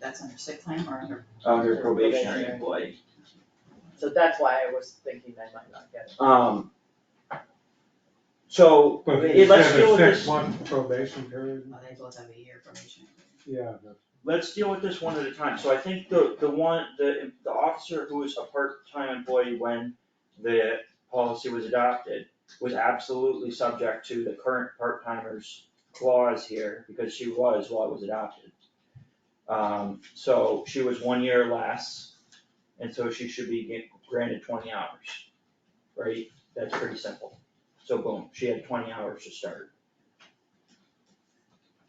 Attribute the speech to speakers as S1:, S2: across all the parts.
S1: that's under sick time or under,
S2: under
S3: Under
S2: Uh, probationary
S3: probationary.
S2: employee.
S3: So that's why I was thinking I might not get it.
S2: Um. So,
S4: But
S2: it- let's
S4: instead
S2: deal
S4: of
S2: with
S4: six
S2: this,
S4: month probation period,
S1: well, Oh, they both have a year probation.
S4: yeah, but
S2: let's deal with this one at a time. So I think the, the one, the, the officer who was a part-time employee when the policy was adopted was absolutely subject to the current part-timers clause here, because she was while it was adopted. Um, so she was one year less, and so she should be get- granted twenty hours, right? That's pretty simple. So boom, she had twenty hours to start.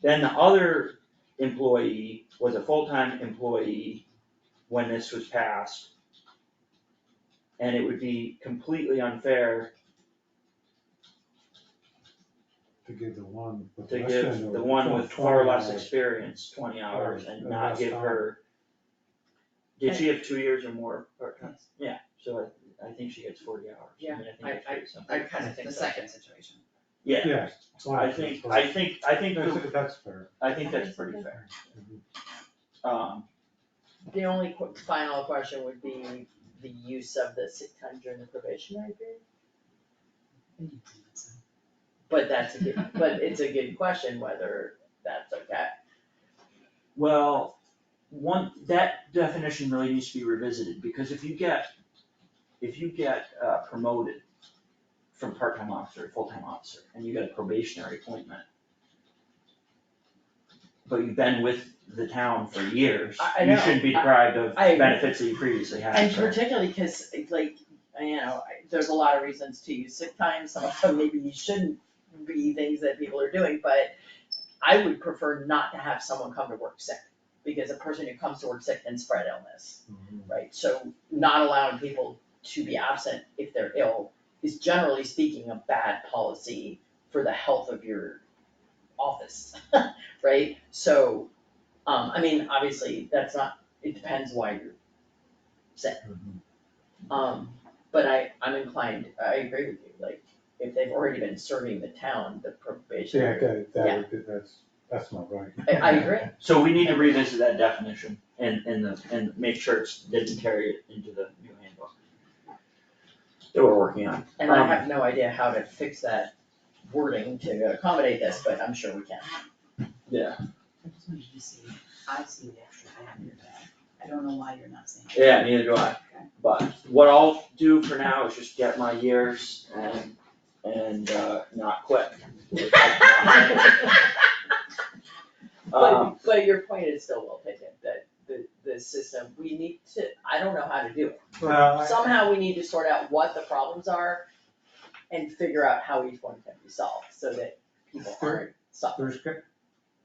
S2: Then the other employee was a full-time employee when this was passed. And it would be completely unfair
S4: to give the one with
S2: to
S4: less
S2: give
S4: than.
S2: the one with far less
S4: 20
S2: experience twenty hours
S4: Right,
S2: and
S4: and
S2: not
S4: less
S2: give
S4: time.
S2: her. Did she have two years or more part-time? Yeah, so I, I think she gets forty hours. I mean, I
S3: Yeah,
S2: think that's pretty simple.
S3: I kinda think
S1: The
S3: so.
S1: second situation.
S2: Yeah,
S4: Yeah.
S2: I think, I think, I think, the-
S4: That's, that's fair.
S2: I think that's pretty fair. Um,
S3: The only qu- final question would be the use of the sick time during the probationary period, but that's a good, but it's a good question whether that's okay.
S2: Well, one, that definition really needs to be revisited, because if you get, if you get uh, promoted from part-time officer to full-time officer, and you get a probationary appointment, but you've been with the town for years,
S3: I- I
S2: you
S3: know.
S2: shouldn't be deprived of
S3: I- I agree.
S2: benefits that you previously had.
S3: And
S2: so-
S3: particularly, cause like, you know, I- there's a lot of reasons to use sick time, some of them maybe you shouldn't be things that people are doing, but I would prefer not to have someone come to work sick, because a person who comes to work sick can spread illness, right? So not allowing people to be absent if they're ill is generally speaking a bad policy for the health of your office, right? So, um, I mean, obviously, that's not, it depends why you're sick. Um, but I, I'm inclined, I agree with you, like, if they've already been serving the town, the
S4: Yeah,
S3: probationary.
S4: okay, that would be, that's, that's not right.
S3: I, I agree,
S2: So we need to revisit that definition and, and the, and make sure it's, didn't carry it into the new handbook that we're working on.
S3: and I
S2: Um,
S3: have no idea how to fix that wording to accommodate this, but I'm sure we can.
S2: Yeah.
S1: I just wanted you to see, I see the extra bad in your bag. I don't know why you're not seeing it.
S2: Yeah, neither do I. But what I'll do for now is just get my years and, and, uh, not quit. Um,
S3: But, but your point is still well taken, that the, the system, we need to, I don't know how to do it.
S4: Well, I-
S3: Somehow we need to sort out what the problems are and figure out how each one can be solved, so that people aren't suffering.
S4: There's, go-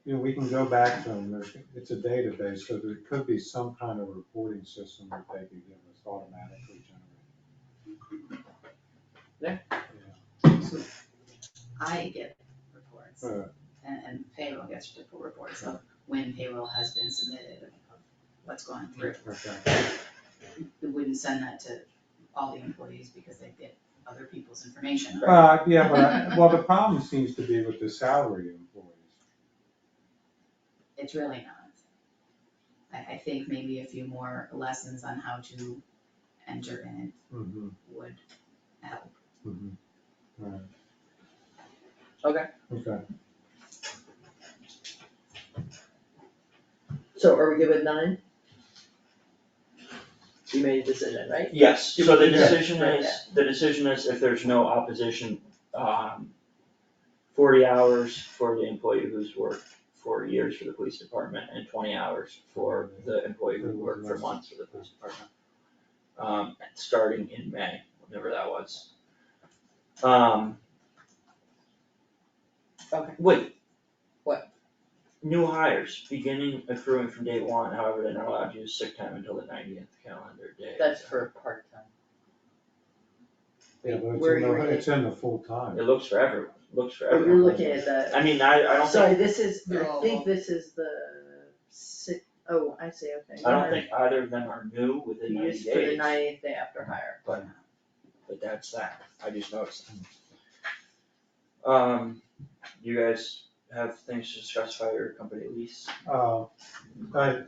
S4: you know, we can go back to them, there's, it's a database, so there could be some kind of reporting system that they could give us automatically generated.
S3: Yeah.
S1: I get reports
S4: Uh,
S1: and, and payroll gets different reports of when payroll has been submitted, of what's gone through.
S4: okay.
S1: We wouldn't send that to all the employees because they get other people's information.
S4: Uh, yeah, but, I- well, the problem seems to be with the salary employees.
S1: It's really not. I, I think maybe a few more lessons on how to enter in
S4: Mm-hmm,
S1: it would help.
S4: mm-hmm, right.
S3: Okay.
S4: Okay,
S3: So are we good with nine? You made a decision, right?
S2: Yes, so the
S3: Yeah.
S2: decision
S3: Yeah.
S2: is, the decision is if there's no opposition, um, forty hours for the employee who's worked for years for the police department and twenty hours for the employee who worked for months for the police department. Um, starting in May, whenever that was. Um.
S3: Okay.
S2: Wait.
S3: What?
S2: New hires beginning accruing from day one, however, they're not allowed to use sick time until the ninetieth calendar day.
S3: That's for part-time.
S4: yeah, but it's
S3: Where
S4: in the,
S3: you're at-
S4: it's in the full time.
S2: It looks for everyone, looks for
S3: Are
S2: everyone.
S3: you looking at the,
S2: I mean, I, I don't
S3: sorry,
S2: think,
S3: this is,
S1: They're
S3: I
S1: all-
S3: think this is the si- oh, I see, okay.
S2: I don't think either of them are new within
S3: You
S2: ninety
S3: used for the
S2: days,
S3: ninetieth day after hire.
S2: but that's that, I just noticed. Um, you guys have things to discuss about your company lease?
S4: Uh, I,